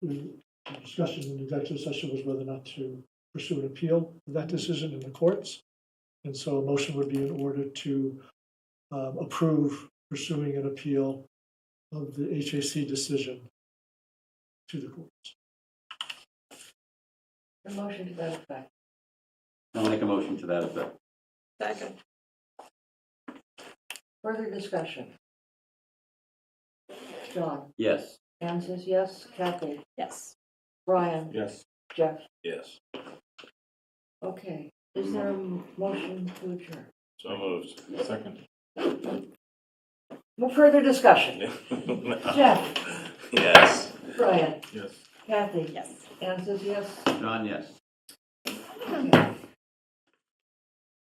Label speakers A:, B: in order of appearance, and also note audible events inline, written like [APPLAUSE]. A: the discussion in the executive session was whether or not to pursue an appeal of that decision in the courts. And so a motion would be in order to um, approve pursuing an appeal of the HAC decision to the courts.
B: A motion to that effect.
C: I'll make a motion to that effect.
D: Second.
B: Further discussion? John,
C: Yes.
B: Anne says yes, Kathy,
D: Yes.
B: Brian,
C: Yes.
B: Jeff.
E: Yes,
B: Okay, is there a motion to adjourn?
E: so moved. [LAUGHS] Second.
B: No further discussion? Jeff,
E: Yes.
B: Brian,
E: Yes.
B: Kathy,
D: Yes.
B: Anne says yes,
C: John, yes.